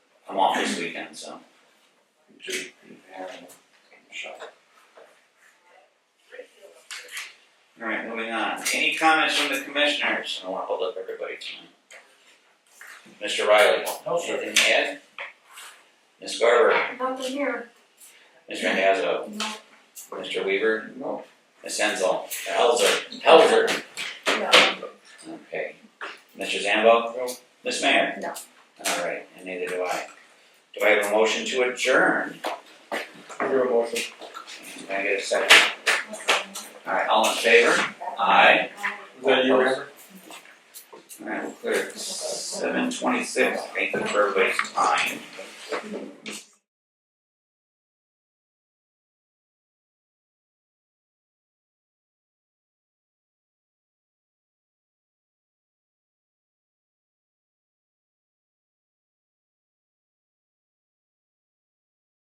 I'm off this weekend, so. Alright, moving on. Any comments from the commissioners? I wanna hold up everybody tonight. Mr. Riley? No, sir. Anything to add? Ms. Garber? Nothing here. Mr. Hazo? No. Mr. Weaver? No. Ms. Enzel? Helzer? Helzer? No. Okay. Mr. Zambo? No. Ms. Mayor? No. Alright, and neither do I. Do I have a motion to adjourn? Your motion. Can I get a second? Alright, all in favor? Aye. Is that yours? Alright, we'll clear seven twenty-six, thank you for everybody's time.